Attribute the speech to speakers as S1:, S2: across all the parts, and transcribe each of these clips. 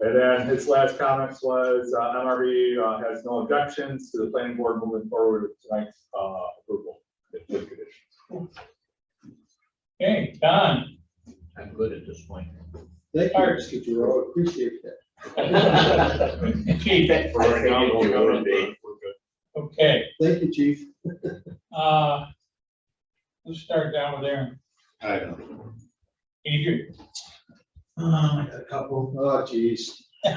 S1: And then his last comments was, uh, MRV uh, has no objections to the planning board moving forward with tonight's, uh, approval. with good conditions.
S2: Okay, Don.
S3: I'm good at this point.
S4: Thank you, Mr. Giroux, appreciate that.
S2: Chief,
S1: For right now, we'll go with Dave. We're good.
S2: okay,
S4: Thank you, chief.
S2: uh, let's start down with Aaron.
S5: I don't.
S2: Adrian.
S6: Um, I got a couple.
S4: Oh, geez.
S6: I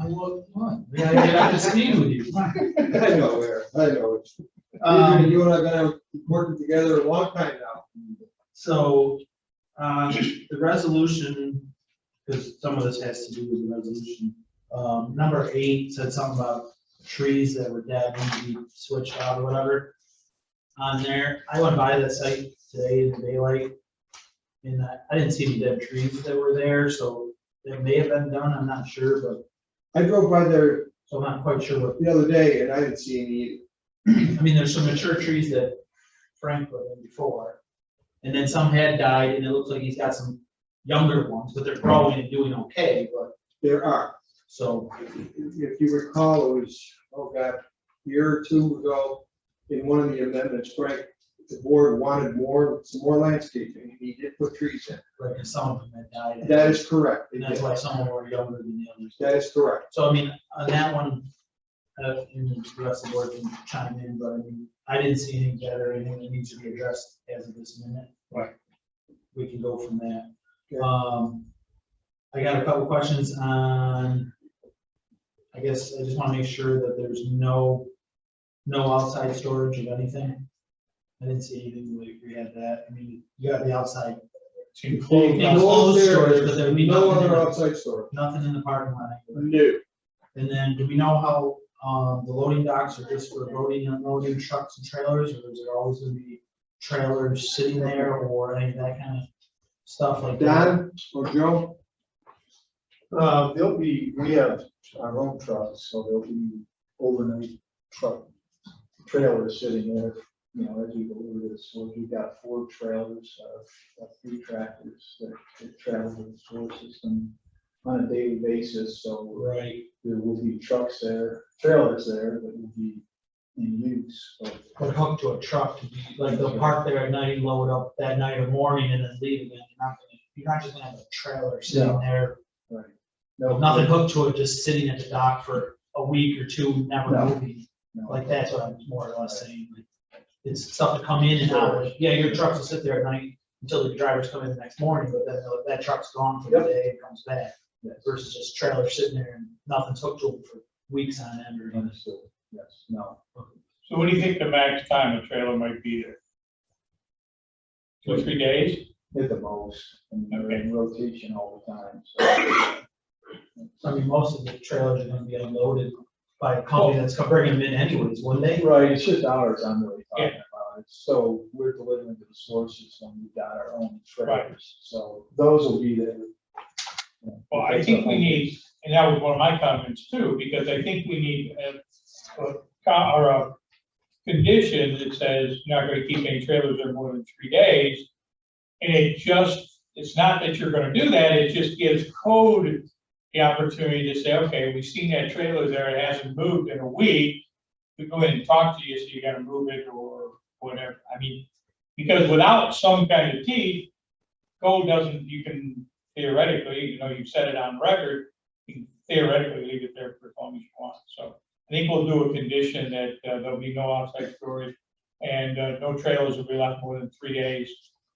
S6: want one. We gotta get up to speed with you.
S4: I know where, I know. it. Adrian,
S6: Um,
S4: You and I have been working together a long time now.
S6: so, um, the resolution, because some of this has to do with the resolution. Um, number eight said something about trees that were dead need to be switched out or whatever. On there, I went by the site today in daylight. And I, I didn't see any dead trees that were there, so it may have been done, I'm not sure, but,
S4: I drove by there
S6: so I'm not quite sure what
S4: the other day and I didn't see any either.
S6: I mean, there's some mature trees that Frank put in before. And then some had died and it looks like he's got some younger ones, but they're growing and doing okay, but
S4: There are.
S6: so.
S4: If you recall, it was, oh God, a year or two ago, in one of the amendments, Frank, the board wanted more, some more landscaping, and he did put trees in.
S6: Right, and some of them had died.
S4: That is correct. they
S6: And that's
S4: did.
S6: why some of them were younger than the others.
S4: That is correct.
S6: So I mean, on that one, uh, and the rest of the board can chime in, but I mean, I didn't see anything dead or anything that needs to be addressed as of this minute.
S4: Right.
S6: We can go from that.
S4: Okay.
S6: Um, I got a couple questions on, I guess, I just wanna make sure that there's no, no outside storage of anything. I didn't see anything, we, we had that, I mean, you got the outside,
S4: No
S6: Closed storage, but
S4: upstairs,
S6: there would be
S4: no
S6: nothing
S4: other
S6: in it.
S4: outside storage.
S6: nothing in the parking lot. anywhere.
S4: New.
S6: And then, do we know how, um, the loading docks are just for loading and unloading trucks and trailers, or is there always gonna be trailers sitting there or any of that kind of stuff like that?
S4: Don or Joe?
S7: Uh, there'll be, we have our own trucks, so there'll be overnight truck trailers sitting there, you know, as you go over this, so you've got four trailers, uh, uh, three tractors that that travel with the sewer system on a daily basis, so
S6: Right,
S7: there will be trucks there, trailers there that will be in use, but
S6: but hooked to a truck, like they'll park there at night, load up that night or morning and then leave again, you're not gonna, you're not just gonna have a trailer sitting
S7: No.
S6: there.
S7: no.
S6: Nothing hooked to it, just sitting at the dock for a week or two, never
S7: No.
S6: moving,
S7: no.
S6: like that's what I'm more or less saying, like, it's stuff to come in and out, yeah, your trucks will sit there at night until the drivers come in the next morning, but then the- that truck's gone for the
S7: Yep.
S6: day and comes back,
S7: Yes,
S6: versus just trailer sitting there and nothing's hooked to it for weeks on end or anything.
S7: understood, yes, no.
S2: So what do you think the max time a trailer might be there? Two, three days?
S7: At the most, and they're in rotation all the time, so.
S6: I mean, most of the trailers are gonna be unloaded by a company that's gonna bring them in anyways, wouldn't they?
S7: Right, it's just ours I'm really talking about. It's- So we're delivering to the sewer system, we've got our own trailers, so those will be there.
S2: Well, I think we need, and that was one of my comments too, because I think we need a, a, co- or a condition that says you're not gonna keep any trailers there more than three days. And it just, it's not that you're gonna do that, it just gives code the opportunity to say, okay, we've seen that trailer there, it hasn't moved in a week. We go in and talk to you, so you gotta move it or whatever, I mean, because without some kind of teeth, code doesn't, you can theoretically, even though you set it on record, you can theoretically leave it there for as long as you want. So I think we'll do a condition that uh, there'll be no outside storage and uh, no trailers will be left more than three days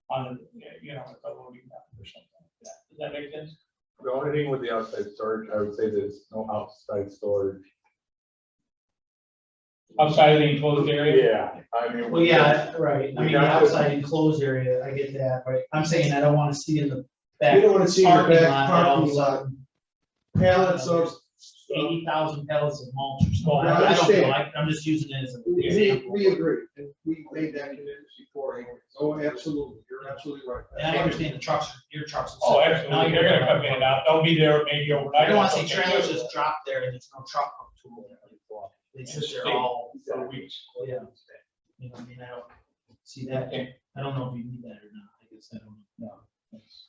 S2: on, the you know, at the loading dock or something like that. Does that make sense?
S1: The only thing with the outside storage, I would say there's no outside storage.
S2: Outside of the enclosed area?
S1: Yeah, I mean.
S6: Well, yeah, right, I
S1: We
S6: mean, the
S1: got to-
S6: outside enclosed area, I get that, but I'm saying I don't wanna see in the
S4: You
S6: back
S4: don't wanna see your
S6: parking
S4: back
S6: lot, all of a
S4: parking lot,
S6: sudden,
S4: pallets of,
S6: eighty thousand pallets of mulch or something.
S4: I
S6: I don't know,
S4: understand.
S6: I- I'm just using it as a.
S4: we, we agree, and we made that commitment before, anyways. oh, absolutely, you're absolutely right.
S6: And I understand the trucks, your trucks. are
S2: Oh,
S6: separate. Now
S2: absolutely.
S6: you're
S2: They're gonna come in and out. They'll be there maybe overnight.
S6: I don't wanna see trailers just drop there and there's no truck up to them. They just, they're all,
S2: For weeks.
S6: yeah, you know, what I mean, I don't see that,
S2: Okay.
S6: I don't know if you need that or not, I guess I don't know.
S7: That's-